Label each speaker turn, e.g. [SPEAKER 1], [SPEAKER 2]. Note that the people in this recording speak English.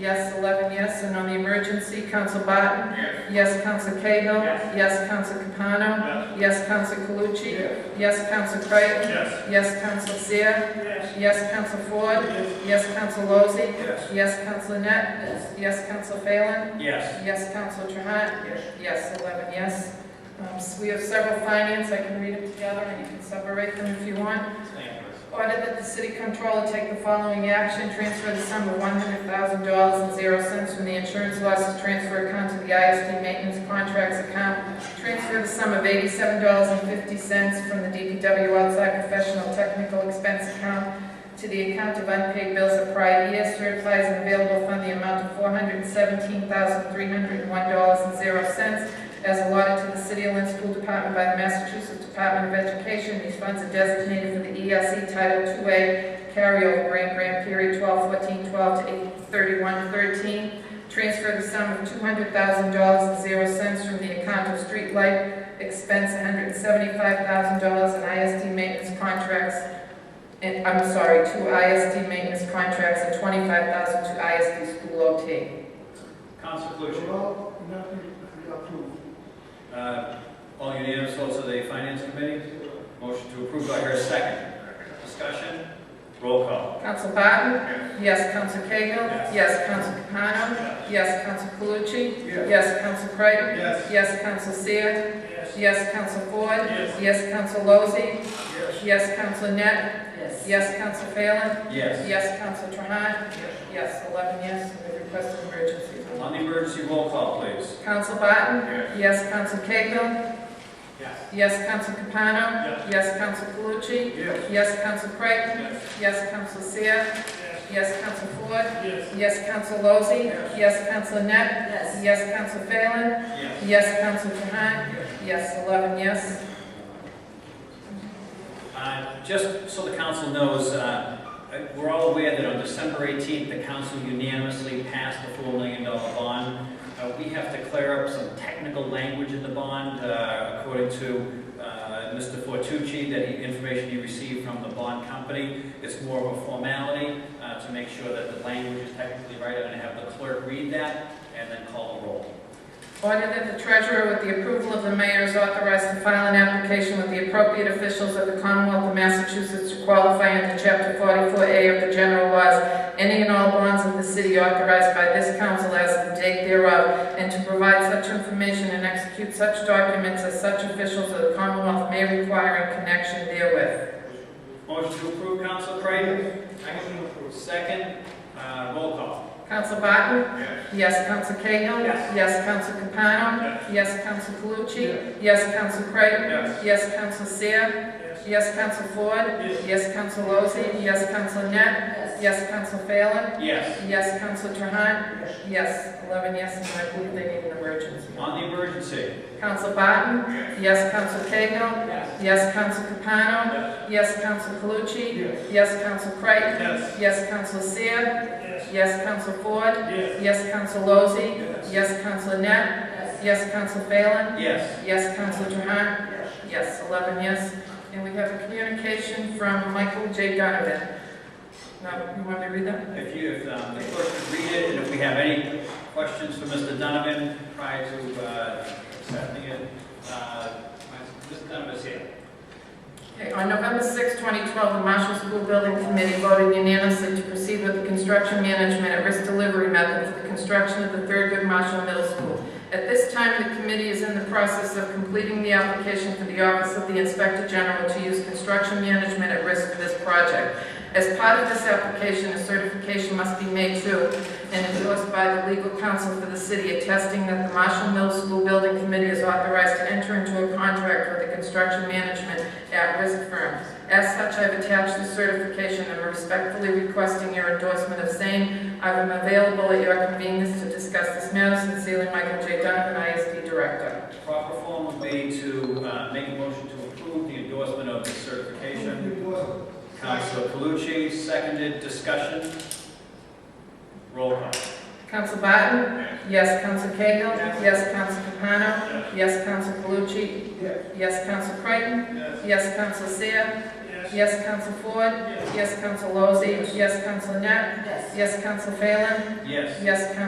[SPEAKER 1] Yes, 11 yes, and on the emergency, Counsel Barton.
[SPEAKER 2] Yes.
[SPEAKER 1] Yes, Counsel Cahill.
[SPEAKER 2] Yes.
[SPEAKER 1] Yes, Counsel Capano. Yes,
[SPEAKER 2] Yes.
[SPEAKER 1] Counsel Calucci.
[SPEAKER 2] Yes.
[SPEAKER 1] Yes, Counsel Creighton.
[SPEAKER 2] Yes.
[SPEAKER 1] Yes, Counsel Seer.
[SPEAKER 2] Yes.
[SPEAKER 1] Yes, Counsel Ford.
[SPEAKER 2] Yes.
[SPEAKER 1] Yes, Counsel Lozey.
[SPEAKER 2] Yes.
[SPEAKER 1] Yes, Counsel Net. Yes, Counsel Phelan.
[SPEAKER 2] Yes.
[SPEAKER 1] Yes, Counsel Trahan.
[SPEAKER 2] Yes.
[SPEAKER 1] Yes, 11 yes. Um, so We have several finance, I can read them together, and you can separate them if you want.
[SPEAKER 2] Thank you.
[SPEAKER 1] Order that the city controller take the following action, transfer the sum of one hundred thousand dollars and zero cents from the insurance losses transfer account to the ISD maintenance contracts account. Transfer the sum of eighty-seven dollars and fifty cents from the DPW outside professional technical expense account to the account of unpaid bills of prior years, certifies an available fund the amount of four hundred and seventeen thousand three hundred and one dollars and zero cents as allotted to the City of Lynn School Department by the Massachusetts Department of Education. These funds are designated for the ELC Title II-A carryover grant, grant period 12-14-12 to 31-13. Transfer the sum of $200,000.00 from the account of street light expense, $175,000 in ISD maintenance contracts, and, I'm sorry, two ISD maintenance contracts and $25,000 to ISD school OT.
[SPEAKER 2] Council Calucci.
[SPEAKER 3] Well, nothing approved.
[SPEAKER 2] Uh, All unanimous, also the Finance Committee. Motion to approve, by her second. Discussion? Roll call.
[SPEAKER 1] Counsel Barton? Yes, Counsel Cahill?
[SPEAKER 2] Yes.
[SPEAKER 1] Yes, Counsel Capano? Yes, Counsel Calucci?
[SPEAKER 2] Yes.
[SPEAKER 1] Yes, Counsel Creighton?
[SPEAKER 2] Yes.
[SPEAKER 1] Yes, Counsel Seer?
[SPEAKER 2] Yes.
[SPEAKER 1] Yes, Counsel Ford?
[SPEAKER 2] Yes.
[SPEAKER 1] Yes, Counsel Lozey?
[SPEAKER 2] Yes.
[SPEAKER 1] Yes, Counsel Net? Yes. Yes, Counsel Phelan?
[SPEAKER 2] Yes.
[SPEAKER 1] Yes, Counsel Trahan? Yes, eleven yes, and the request of emergency.
[SPEAKER 2] On the emergency roll call, please.
[SPEAKER 1] Counsel Barton?
[SPEAKER 2] Yes.
[SPEAKER 1] Yes, Counsel Cahill?
[SPEAKER 2] Yes.
[SPEAKER 1] Yes, Counsel Capano? Yes, Counsel Calucci?
[SPEAKER 2] Yes.
[SPEAKER 1] Yes, Counsel Creighton?
[SPEAKER 2] Yes.
[SPEAKER 1] Yes, Counsel Seer?
[SPEAKER 2] Yes.
[SPEAKER 1] Yes, Counsel Ford?
[SPEAKER 2] Yes.
[SPEAKER 1] Yes, Counsel Lozey?
[SPEAKER 2] Yes.
[SPEAKER 1] Yes, Counsel Net?
[SPEAKER 4] Yes.
[SPEAKER 1] Yes, Counsel Phelan?
[SPEAKER 2] Yes.
[SPEAKER 1] Yes, Counsel Trahan? Yes, 11 yes.
[SPEAKER 2] Uh, Just so the council knows, uh, we're all aware that on December 18th, the council unanimously passed the $4 million bond. Uh, We have to clear up some technical language in the bond, uh, according to uh, Mr. Fortucci, that he- information he received from the bond company. It's more of a formality uh, to make sure that the language is technically right. I'm going to have the clerk read that and then call the roll.
[SPEAKER 1] Order that the treasurer, with the approval of the mayor, is authorized to file an application with the appropriate officials of the Commonwealth of Massachusetts to qualify under Chapter 44A of the general laws, any and all bonds of the city authorized by this council as of the date thereof, and to provide such information and execute such documents as such officials of the Commonwealth may require in connection therewith.
[SPEAKER 2] Motion to approve, Council Creighton? Motion to approve. Second, uh, roll call.
[SPEAKER 1] Counsel Barton? Yes, Counsel Cahill?
[SPEAKER 2] Yes.
[SPEAKER 1] Yes, Counsel Capano? Yes, Counsel Calucci? Yes, Counsel Creighton?
[SPEAKER 2] Yes.
[SPEAKER 1] Yes, Counsel Seer? Yes, Counsel Ford?
[SPEAKER 2] Yes.
[SPEAKER 1] Yes, Counsel Lozey? Yes, Counsel Net?
[SPEAKER 4] Yes.
[SPEAKER 1] Yes, Counsel Phelan?
[SPEAKER 2] Yes.
[SPEAKER 1] Yes, Counsel Trahan? Yes, 11 yes, and I believe they need an emergency.
[SPEAKER 2] On the emergency.
[SPEAKER 1] Counsel Barton? Yes, Counsel Cahill?
[SPEAKER 2] Yes.
[SPEAKER 1] Yes, Counsel Capano?
[SPEAKER 2] Yes.
[SPEAKER 1] Yes, Counsel Calucci?
[SPEAKER 3] Yes.
[SPEAKER 1] Yes, Counsel Creighton?
[SPEAKER 2] Yes.
[SPEAKER 1] Yes, Counsel Seer?
[SPEAKER 2] Yes.
[SPEAKER 1] Yes, Counsel Ford?
[SPEAKER 2] Yes.
[SPEAKER 1] Yes, Counsel Lozey?
[SPEAKER 2] Yes.
[SPEAKER 1] Yes, Counsel Net?
[SPEAKER 4] Yes.
[SPEAKER 1] Yes, Counsel Phelan?
[SPEAKER 2] Yes.
[SPEAKER 1] Yes, Counsel Trahan? Yes, 11 yes. And we have a communication from Michael J. Donovan. Now, you want me to read that?
[SPEAKER 2] If you, if um, the clerk could read it, and if we have any questions for Mr. Donovan prior to uh, accepting it, uh, Mr. Donovan is here.
[SPEAKER 1] Okay, on November 6, 2012, the Marshall School Building Committee voted unanimously to proceed with the construction management at risk delivery method for the construction of the Thurgood Marshall Middle School. At this time, the committee is in the process of completing the application for the Office of the Inspector General to use construction management at risk for this project. As part of this application, a certification must be made to and endorsed by the legal counsel for the city attesting that the Marshall Middle School Building Committee is authorized to enter into a contract with the construction management at-risk firm. As such, I've attached the certification and respectfully requesting your endorsement of same. I am available at your convenience to discuss this matter. Sincerely, Michael J. Donovan, ISD Director.
[SPEAKER 2] The Proper form would be to uh, make a motion to approve the endorsement of the certification. Council Calucci, seconded, discussion. Roll call.
[SPEAKER 1] Counsel Barton? Yes. Counsel Cahill? Yes. Counsel Capano? Yes. Counsel Calucci? Yes. Counsel Creighton? Yes. Counsel Seer?
[SPEAKER 3] Yes.
[SPEAKER 1] Yes, Counsel Floyd?
[SPEAKER 3] Yes.
[SPEAKER 1] Yes, Counsel Lozey? Yes, Counsel Net?
[SPEAKER 4] Yes.
[SPEAKER 1] Yes, Counsel Phelan?
[SPEAKER 2] Yes.
[SPEAKER 1] Yes, Counsel